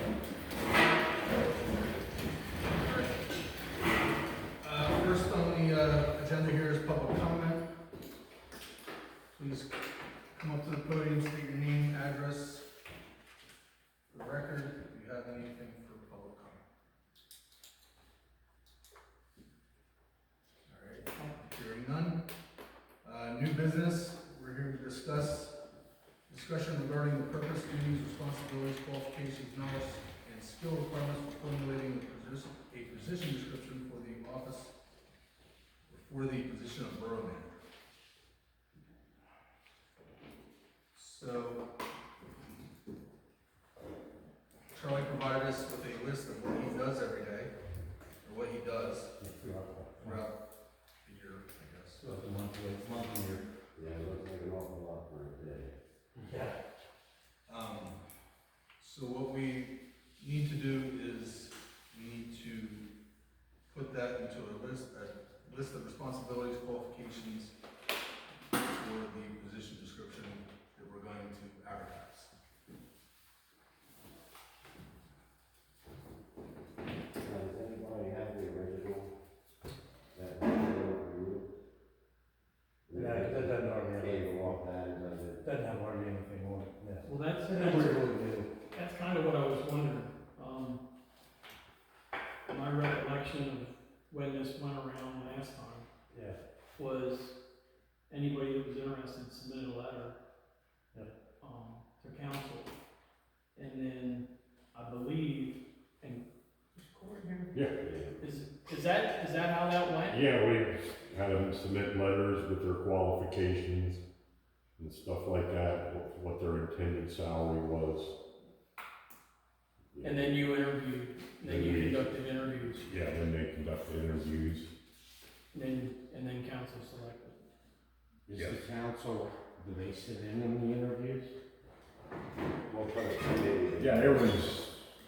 Uh, Uh, Charlie provided us with a list of what he does every day, or what he does throughout the year, I guess. So it's a month, it's a month a year. Yeah, it looks like an awful lot for a day. Um, so what we need to do is, we need to put that into a list, a list of responsibilities, qualifications for the position description that we're going to advertise. Now, does anybody have the original? That was there for you? Yeah, it doesn't hardly, Came off that and does it, doesn't have hardly anything on it, yeah. Well, that's, That's that's, really new. that's kind of what I was wondering, um, my recollection of when this went around last time yeah. was anybody that was interested submitted a letter. Yeah. Um, to council, and then I believe, and. Yeah. Is, is that, is that how that went? Yeah, we had them submit letters with their qualifications and stuff like that, what- what their intended salary was. And then you interviewed, then you conducted interviews, Yeah, then they conducted interviews. and then, and then council selected. is Yeah. the council, do they sit in on the interviews? Well, for the committee. Yeah, there was,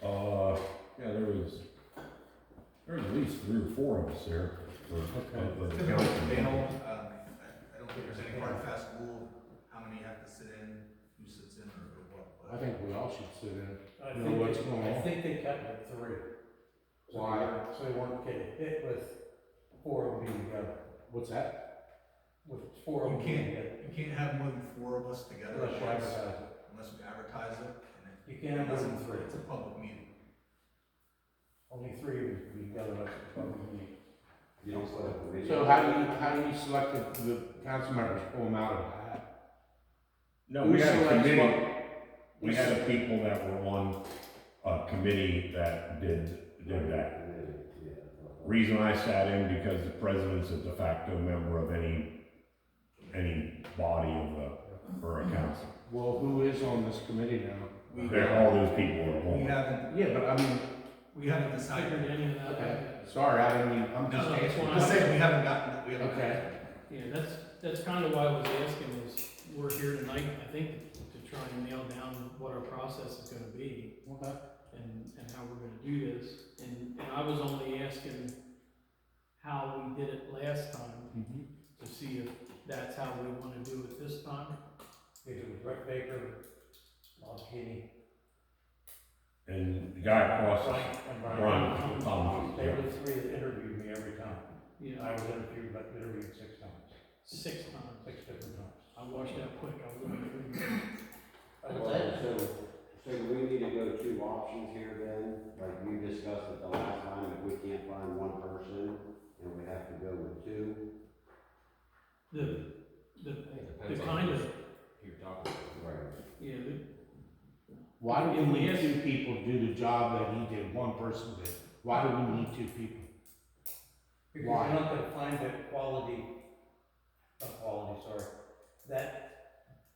uh, yeah, there was, there was at least three or four of us there for, of the Typical panel, council. um, I I don't think there's any hard and fast rule, how many have to sit in, who sits in, or what. but- I think we all should sit in. I Know think what's they- going I on. think they cut it at three. So Why? they- So they weren't getting hit with four of them being together, What's that? with four of You them being can't. together. You can't have more than four of us together, Unless you unless advertise it. unless we advertise it, and You it, can't have more unless than it's three. it's a public meeting. Only three of you can be together, that's what we need. You don't set up a meeting. So how do you, how do you select the, the council members, pull them out of a hat? No, we Who had a selects committee. what- We had a people that were on a committee that did, did that. Yeah. Reason I sat in because the president's a de facto member of any, any body of a, or a council. Well, who is on this committee now? We, They're, all those people are we on. haven't, Yeah, but I mean, we haven't I decided. figured any of that. okay, sorry, I didn't mean, I'm just No, that's asking. fine. Just saying, we haven't gotten, we haven't. Okay. Yeah, that's, that's kind of why I was asking is, we're here tonight, I think, to try and nail down what our process is gonna be Okay. and, and how we're gonna do this. And, and I was only asking how we did it last time Mhm. to see if that's how we wanna do it this time. They do with Rick Baker, Bob Haney. And the guy across the Frank and Brian. Brian, Tom, They were yeah. the three that interviewed me every time. You know, I was interviewed, but interviewed six times, six times. six different times. I watched that quick, I was like, Well, so, so do we need to go two options here then, like we discussed it the last time, if we can't find one person, and we have to go with two. the, the, the kind of, You're talking. Right. yeah, the, Why do we need Yes. two people to do the job that he did, one person did? Why do we need two people? Because Why? you're not gonna find that quality, not quality, sorry, that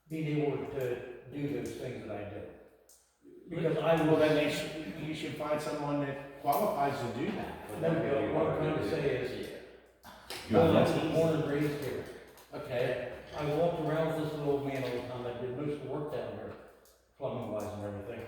being able to do those things that I do. Because I Well, will, then then they should, you should find someone that qualifies to do that. Bill, what I'm trying to say is, I Yeah. was born and raised here, okay? I walked around with this little man all the time, I did most of the work down here, plumbing wise and everything.